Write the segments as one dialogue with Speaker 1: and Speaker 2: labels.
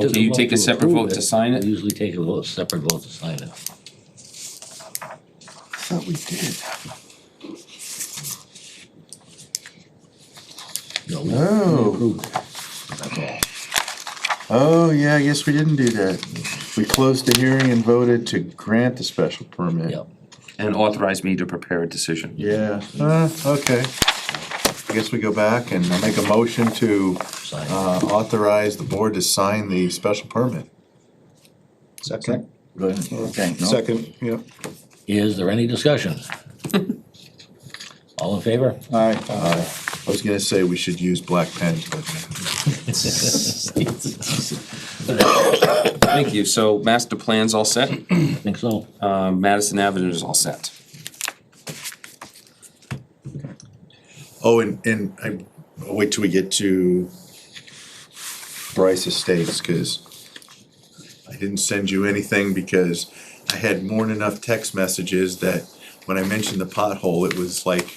Speaker 1: Can you take a separate vote to sign
Speaker 2: We
Speaker 1: it?
Speaker 2: Usually take a vote, separate vote to sign it.
Speaker 3: Thought we did.
Speaker 2: No, we
Speaker 3: Oh.
Speaker 2: approved it. That's all.
Speaker 3: Oh, yeah, I guess we didn't do that. We closed the hearing and voted to grant the special permit.
Speaker 2: Yep.
Speaker 1: And authorize me to prepare a decision.
Speaker 3: Yeah, uh, okay. I guess we go back and I'll make a motion to,
Speaker 2: Sign it.
Speaker 3: uh, authorize the board to sign the special permit.
Speaker 4: Second.
Speaker 3: Go ahead.
Speaker 4: Okay. Second, yeah.
Speaker 2: Is there any discussion? All in favor?
Speaker 4: Aye.
Speaker 3: I was gonna say we should use black pen, but
Speaker 1: Thank you. So master plan's all set,
Speaker 2: I think so.
Speaker 1: uh, Madison Avenue is all set.
Speaker 3: Oh, and, and I, I'll wait till we get to Bryce Estates, cause I didn't send you anything because I had more than enough text messages that when I mentioned the pothole, it was like,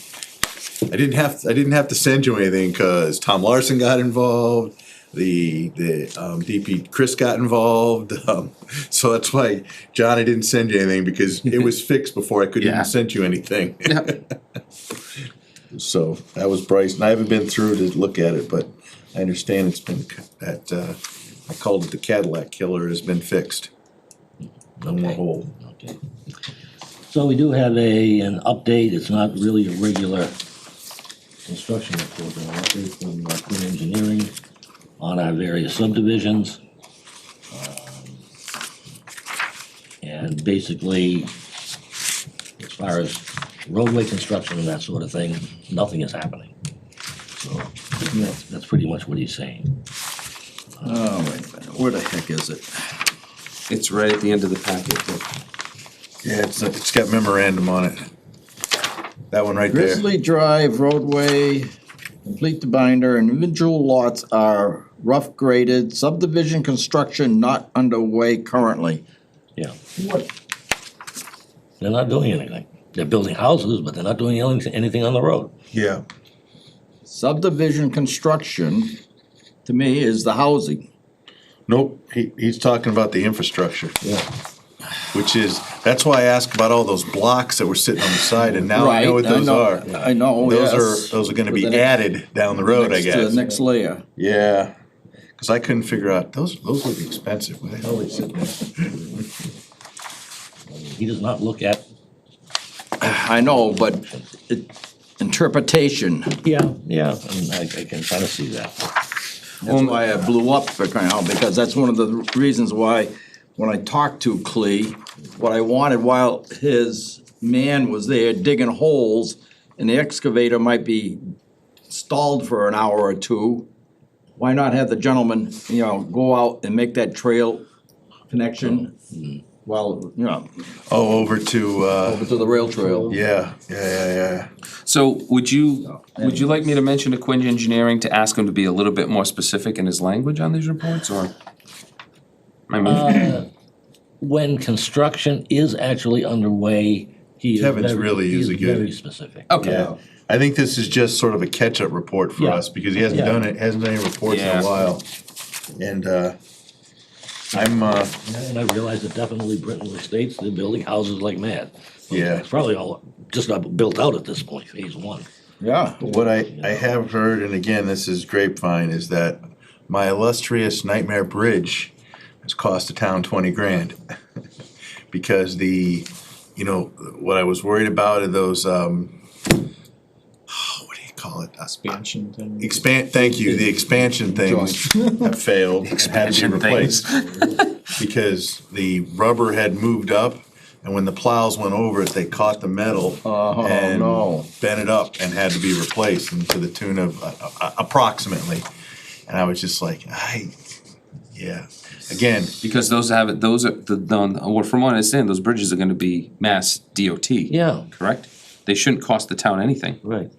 Speaker 3: I didn't have, I didn't have to send you anything, cause Tom Larson got involved, the, the, um, DP, Chris got involved, um, so that's why, John, I didn't send you anything because it was fixed before I could
Speaker 1: Yeah.
Speaker 3: even send you anything.
Speaker 1: Yeah.
Speaker 3: So that was Bryce, and I haven't been through to look at it, but I understand it's been, c- that, uh, I called it the Cadillac killer has been fixed. No more
Speaker 2: Okay.
Speaker 3: hole.
Speaker 2: Okay. So we do have a, an update, it's not really a regular construction report, but an update from uh, Quinn Engineering on our various subdivisions. Um, And basically, as far as roadway construction and that sort of thing, nothing is happening. So that's, that's pretty much what he's saying.
Speaker 4: Oh, wait a minute, where the heck is it?
Speaker 1: It's right at the end of the packet. Dick.
Speaker 3: Yeah, it's, it's got memorandum on it. That one right there.
Speaker 4: Grizzly Drive roadway, complete the binder, and individual lots are rough graded, subdivision construction not underway currently.
Speaker 2: Yeah. They're not doing anything. They're building houses, but they're not doing anything, anything on the road.
Speaker 3: Yeah.
Speaker 4: Subdivision construction, to me, is the housing.
Speaker 3: Nope, he, he's talking about the infrastructure.
Speaker 2: Yeah.
Speaker 3: Which is, that's why I asked about all those blocks that were sitting on the side, and now I know what
Speaker 4: Right,
Speaker 3: those are.
Speaker 4: I know, oh, yes.
Speaker 3: Those are, those are gonna be
Speaker 4: With the next-
Speaker 3: added down the road, I
Speaker 4: next to the
Speaker 3: guess.
Speaker 4: Next layer.
Speaker 3: Yeah, cause I couldn't figure out, those, those look expensive, what the hell are they sitting there?
Speaker 2: He does not look at.
Speaker 4: I know, but it- interpretation,
Speaker 2: Yeah, yeah. And I, I can kind of see that.
Speaker 4: that's why I blew up for crying out, because that's one of the reasons why, when I talked to Clee, what I wanted while his man was there digging holes, and the excavator might be stalled for an hour or two, why not have the gentleman, you know, go out and make that trail connection? Well, you know,
Speaker 3: Oh, over to, uh,
Speaker 4: Mm-hmm. over to the rail trail.
Speaker 3: yeah, yeah, yeah, yeah.
Speaker 1: So would you, would you like me to mention to Quinn Engineering to ask him to be a little bit more specific in his language on these reports or? I mean,
Speaker 2: When construction is actually underway, he is
Speaker 3: Kevin's
Speaker 2: very,
Speaker 3: really
Speaker 2: he
Speaker 3: is a good-
Speaker 2: very specific.
Speaker 1: okay,
Speaker 3: Yeah, I think this is just sort of a catch-up report for
Speaker 2: Yeah.
Speaker 3: us, because he hasn't
Speaker 2: Yeah.
Speaker 3: done it, hasn't done any reports in
Speaker 1: Yeah.
Speaker 3: a while. And, uh, I'm, uh,
Speaker 2: And I realize that definitely Brittenell Estates, they're building houses like mad.
Speaker 3: yeah,
Speaker 2: It's probably all just not built out at this point, phase one.
Speaker 4: Yeah.
Speaker 3: what I, I have heard, and again, this is grapevine, is that my illustrious Nightmare Bridge has cost the town twenty grand. Because the, you know, what I was worried about are those, um, what do you call it?
Speaker 5: expansion thing.
Speaker 3: Expand, thank you, the expansion things have failed, and had
Speaker 1: Expansion
Speaker 3: to be replaced. Because the rubber had moved up, and when the plows went over it, they caught the metal.
Speaker 4: Oh,
Speaker 3: and
Speaker 4: no.
Speaker 3: Bent it up and had to be replaced, and to the tune of uh, uh, approximately. And I was just like, I, yeah, again,
Speaker 1: because those have, those are, the, the- well, from what I understand, those bridges are gonna be mass DOT.
Speaker 2: Yeah.
Speaker 1: Correct? They shouldn't cost the town anything,
Speaker 2: Right.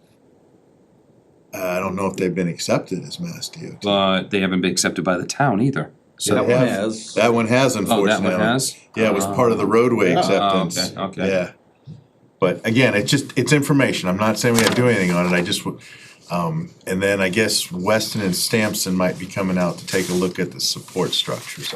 Speaker 3: uh, I don't know if they've been accepted as Mass DOT.
Speaker 1: but they haven't been accepted by the town either. So,
Speaker 4: That
Speaker 3: They
Speaker 4: one
Speaker 3: have-
Speaker 4: has.
Speaker 3: That one has
Speaker 1: oh,
Speaker 3: unfortunately.
Speaker 1: that one has?
Speaker 3: Yeah, it was part of the roadway acceptance.
Speaker 1: Oh, okay, okay.
Speaker 3: Yeah. But again, it's just, it's information. I'm not saying we have to do anything on it. I just, w- Um, and then I guess Weston and Stampson might be coming out to take a look at the support structures